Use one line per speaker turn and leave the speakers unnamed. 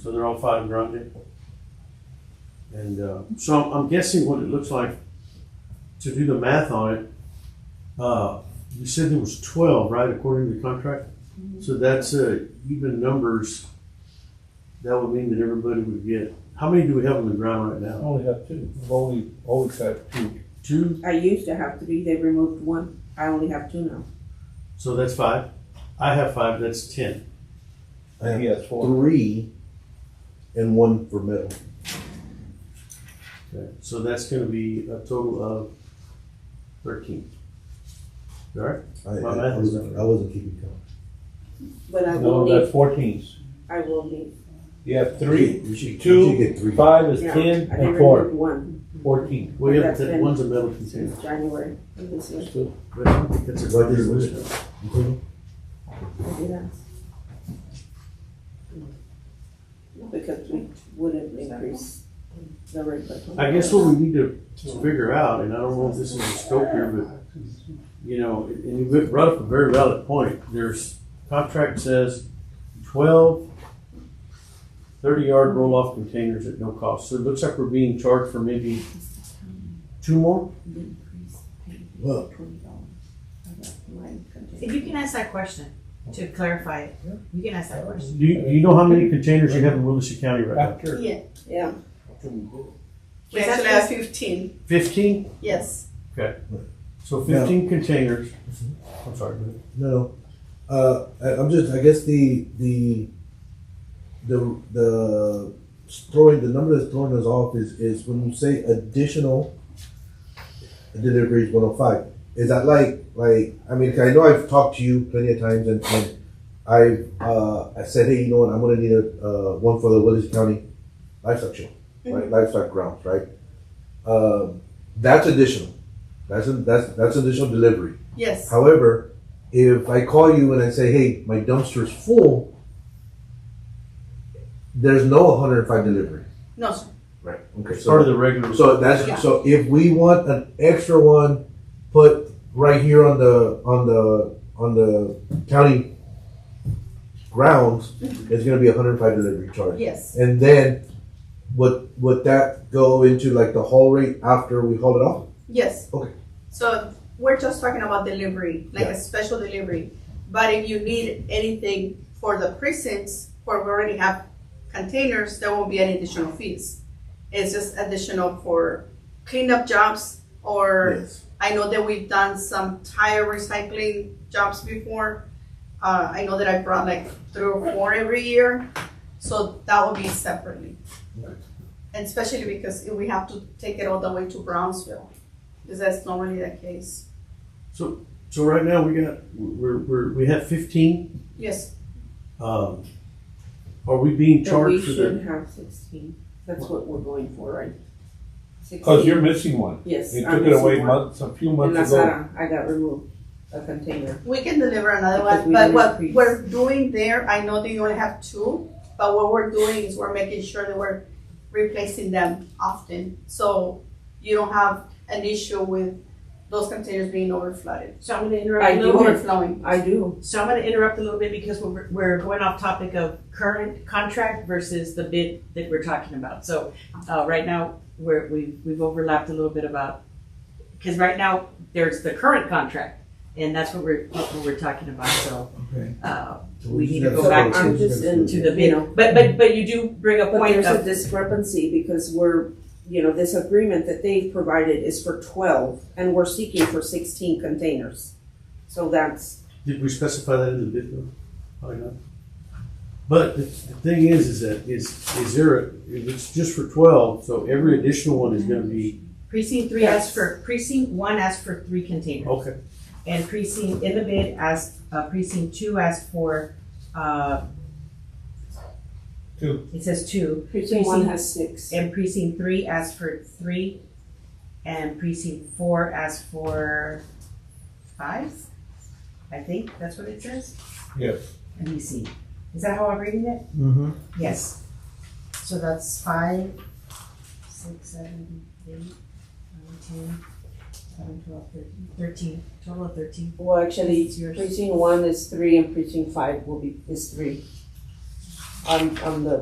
So they're all five grande. And uh, so I'm, I'm guessing what it looks like to do the math on it. Uh, you said there was 12, right, according to the contract? So that's uh, even numbers. That would mean that everybody would get. How many do we have on the ground right
I
now?
only have two. I've only always had two.
Two.
I used to have three, they removed one. I only have two now.
So that's five. I have five. That's ten.
I
He
have
has four.
three and one for metal.
Okay. So that's going to be a total of thirteen. All right.
I, I,
My math
I
is
wasn't,
right.
I wasn't keeping count.
But I will
No, that's
leave,
fourteens.
I will leave.
You have three.
You should, you
Two,
should get three.
Five is
Yeah,
ten
I
and
didn't
four.
remove one
Fourteen.
We have
That's
ten.
it.
One's a metal container.
since January of this year.
But I don't think that's a
What is
problem.
it? You think?
I did ask. Because we wouldn't increase the rate. but-
I guess what we need to figure out, and I don't know if this is the scope here, but, you know, and you brought up a very valid point. There's, contract says twelve thirty-yard roll-off containers at no cost. So it looks like we're being charged for maybe two more?
Well,
If you can ask that question to clarify it, you can ask that question.
Do you, do you know how many containers you have in Willis County right now?
After.
Yeah,
Yeah,
we
Was that
actually
just-
have fifteen,
Fifteen?
yes.
So fifteen containers. I'm sorry. go ahead.
no, uh, I, I'm just, I guess the, the, the, the throwing, the number that's throwing us off is, is when you say additional deliveries one oh five. Is that like, like, I mean, 'cause I know I've talked to you plenty of times and, and I, uh, I said, hey, you know what, I'm gonna need a, uh, one for the Willis County livestock show, right, livestock grounds, right? Um, that's additional, that's, a- that's, that's additional delivery.
Yes,
However, if I call you and I say, hey, my dumpster's full, there's no 105 delivery.
no, sir.
Right. Okay.
Part of
So,
the regular.
so that's
Yeah.
so if we want an extra one put right here on the on the on the county grounds,
Mm-hmm.
it's gonna be 105 delivery charge.
yes,
And then would would that go into like the haul rate after we haul it off?
yes.
Okay.
So we're just talking about delivery, like
Yeah.
a special delivery. But if you need anything for the precincts, where we already have containers, there won't be any additional fees. It's just additional for cleanup jobs or
Yes.
I know that we've done some tire recycling jobs before. Uh, I know that I brought like three or four every year, so that will be separately. And especially because if we have to take it all the way to Brownsville, because that's normally the case.
So, so right now we got, we're, we're, we have fifteen
Yes,
Um, are we being
but we
charged for
should
the?
have sixteen. That's what we're going for, right?
Cause you're
16.
missing one.
Yes.
Oh, You
I'm
took it away
missing one.
months, a few
In La
months ago.
Sara, I got removed a container.
we can deliver another
Because
one,
we
but
didn't
what
increase.
we're doing there, I know that you only have two, but what we're doing is we're making sure that we're replacing them often, so you don't have an issue with those containers being overflooded.
So I'm gonna
I
interrupt a
do
little bit.
Overflowing.
I do.
So I'm gonna interrupt a little bit because we're, we're going off topic of current contract versus the bid that we're talking about. So, uh, right now, we're, we've, we've overlapped a little bit about, because right now, there's the current contract, and that's what we're, what we're talking about, so.
Okay.
Uh,
So
We
just
need to
gotta
go back
separate
I'm
those.
just in-
to the
You know.
bid, but, but, but you do bring a
But
point
there's a
of,
discrepancy because we're, you know, this agreement that they've provided is for twelve and we're seeking for sixteen containers. So that's,
Did we specify that in the bid though? Probably not. But the, the thing is, is that is, is there, a- if it's just for twelve, so every additional one is gonna be,
precinct three asked for, precinct one asked for three containers.
okay.
And precinct, in the bid, asked, uh, precinct two asked for, uh.
Two.
It says two,
precinct one has six.
and precinct three asked for three, and precinct four asked for five? I think that's what it says.
Yes.
Let me see, is that how I'm reading it?
Mhm.
Yes. So that's five, six, seven, eight, nine, ten, eleven, twelve, thirteen, thirteen, total of thirteen.
Well, actually,
It's yours.
precinct one is three and precinct five will be, is three. On, on the